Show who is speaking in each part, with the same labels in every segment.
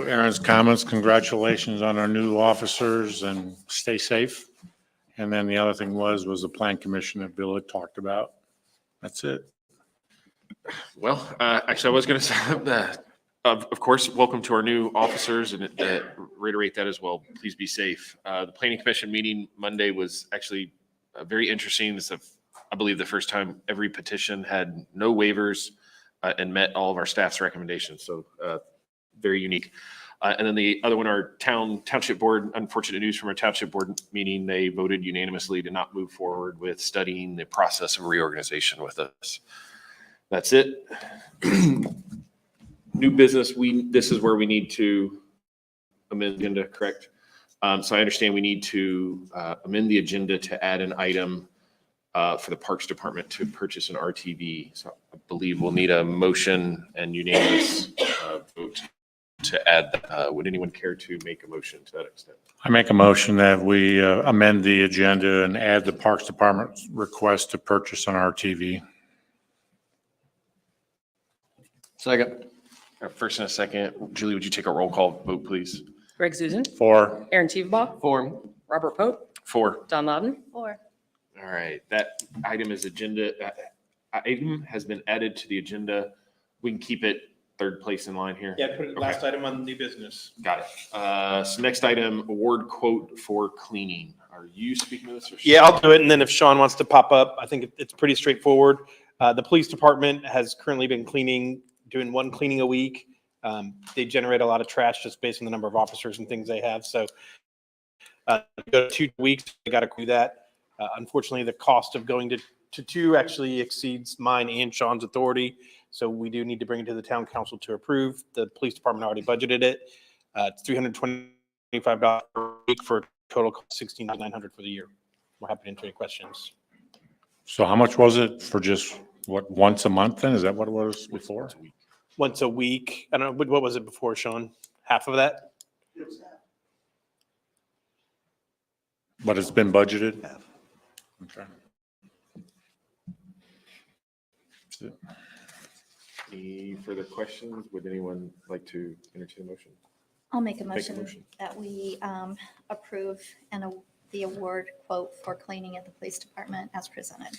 Speaker 1: Aaron's comments, congratulations on our new officers and stay safe. And then the other thing was, was the plan commission that Bill had talked about. That's it.
Speaker 2: Well, uh, actually, I was going to say, uh, of, of course, welcome to our new officers and uh, reiterate that as well. Please be safe. Uh, The planning commission meeting Monday was actually uh, very interesting. It's, the- I believe, the first time every petition had no waivers uh, and met all of our staff's recommendations. So uh, very unique. Uh, And then the other one, our town township board, unfortunate news from our township board meeting, they voted unanimously to not move forward with studying the process of reorganization with us. That's it. New business, we, this is where we need to amend the agenda, correct? Um, so I understand we need to, uh, amend the agenda to add an item, uh, for the Parks Department to purchase an RTV. So I believe we'll need a motion and unanimous, uh, vote to add, uh, would anyone care to make a motion to that extent?
Speaker 1: I make a motion that we uh, amend the agenda and add the Parks Department's request to purchase an RTV.
Speaker 3: Second.
Speaker 2: Uh, First and a second, Julie, would you take a roll call vote, please?
Speaker 4: Greg Zuzen,
Speaker 1: Four,
Speaker 4: Aaron Teveba,
Speaker 3: Four.
Speaker 4: Robert Pope,
Speaker 2: Four.
Speaker 4: Don Loudon,
Speaker 5: Four.
Speaker 2: All right, that item is agenda, uh, item has been added to the agenda. We can keep it third place in line here.
Speaker 6: Yeah, put it last item on new business.
Speaker 2: Got it. Uh, So next item, award quote for cleaning. Are you speaking to this or?
Speaker 6: Yeah, I'll do it, and then if Sean wants to pop up, I think it- it's pretty straightforward. Uh, The police department has currently been cleaning, doing one cleaning a week. Um, They generate a lot of trash just based on the number of officers and things they have, so uh, go two weeks, they gotta do that. Uh, Unfortunately, the cost of going to, to two actually exceeds mine and Sean's authority, so we do need to bring it to the town council to approve. The police department already budgeted it. Uh, It's $325 per week for a total cost of 16900 for the year we're happy to answer any questions.
Speaker 1: so how much was it for just, what, once a month then? Is that what it was before?
Speaker 6: Once a week, I don't know, what- what was it before, Sean? Half of that?
Speaker 1: But it's been budgeted? Okay.
Speaker 2: Any further questions? Would anyone like to entertain a motion?
Speaker 5: I'll make a
Speaker 2: Make a
Speaker 5: motion
Speaker 2: motion.
Speaker 5: that we um, approve and a- the award quote for cleaning at the police department as presented.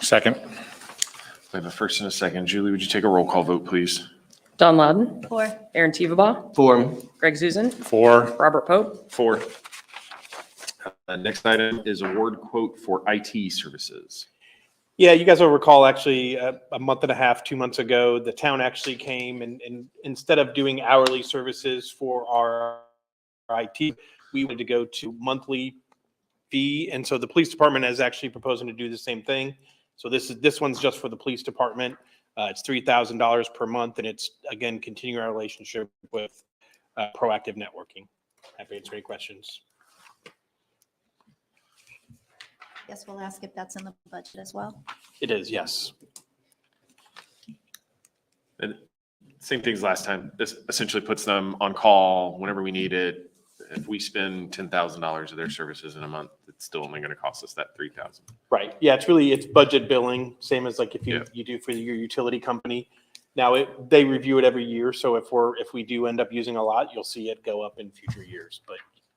Speaker 1: Second,
Speaker 2: I have a first and a second. Julie, would you take a roll call vote, please?
Speaker 4: Don Loudon,
Speaker 5: Four.
Speaker 4: Aaron Teveba,
Speaker 3: Four.
Speaker 4: Greg Zuzen,
Speaker 1: four,
Speaker 4: Robert Pope,
Speaker 2: Four. Uh, Next item is award quote for IT services.
Speaker 6: Yeah, you guys will recall actually uh, a month and a half, two months ago, the town actually came and, and instead of doing hourly services for our IT, we wanted to go to monthly fee. And so the police department is actually proposing to do the same thing. So this is, this one's just for the police department. Uh, It's $3,000 per month and it's, again, continuing our relationship with uh, proactive networking. Happy to answer any questions.
Speaker 5: Yes, we'll ask if that's in the budget as well.
Speaker 6: It is, yes.
Speaker 2: And same things last time. This essentially puts them on call whenever we need it. If we spend ten thousand dollars of their services in a month, it's still only gonna cost us that three thousand.
Speaker 6: Right, yeah, it's really, it's budget billing, same as like if
Speaker 2: Yeah.
Speaker 6: you, you do for your utility company. Now, it, they review it every year, so if we're, if we do end up using a lot, you'll see it go up in future years, but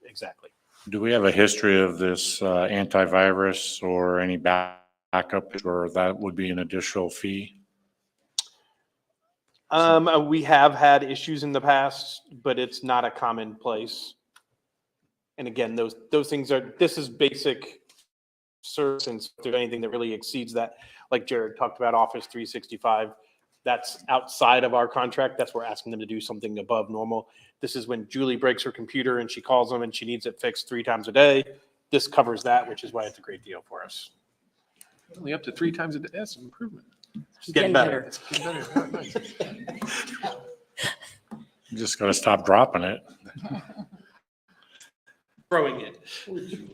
Speaker 6: exactly.
Speaker 1: do we have a history of this uh, antivirus or any back- backup, or that would be an additional fee?
Speaker 6: Um, uh, we have had issues in the past, but it's not a common place. And again, those, those things are, this is basic service, and if there's anything that really exceeds that, like Jared talked about Office three sixty-five, that's outside of our contract, that's where we're asking them to do something above normal. This is when Julie breaks her computer and she calls them and she needs it fixed three times a day. This covers that, which is why it's a great deal for us.
Speaker 2: Only up to three times a day. That's an improvement.
Speaker 6: It's
Speaker 4: getting better.
Speaker 1: You Just gotta stop dropping it.
Speaker 6: Growing it.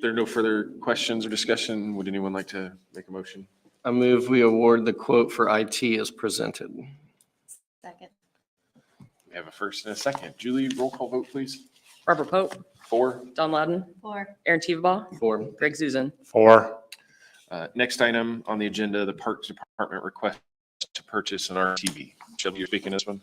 Speaker 2: There are no further questions or discussion. Would anyone like to make a motion?
Speaker 3: I move we award the quote for IT as presented.
Speaker 5: Second.
Speaker 2: We have a first and a second. Julie, roll call vote, please.
Speaker 4: Robert Pope,
Speaker 2: Four.
Speaker 4: Don Loudon,
Speaker 5: Four.
Speaker 4: Aaron Teveba,
Speaker 3: Four.
Speaker 4: Greg Zuzen,
Speaker 1: Four,
Speaker 2: Uh, next item on the agenda, the Parks Department request to purchase an RTV. Jim, you're speaking this one?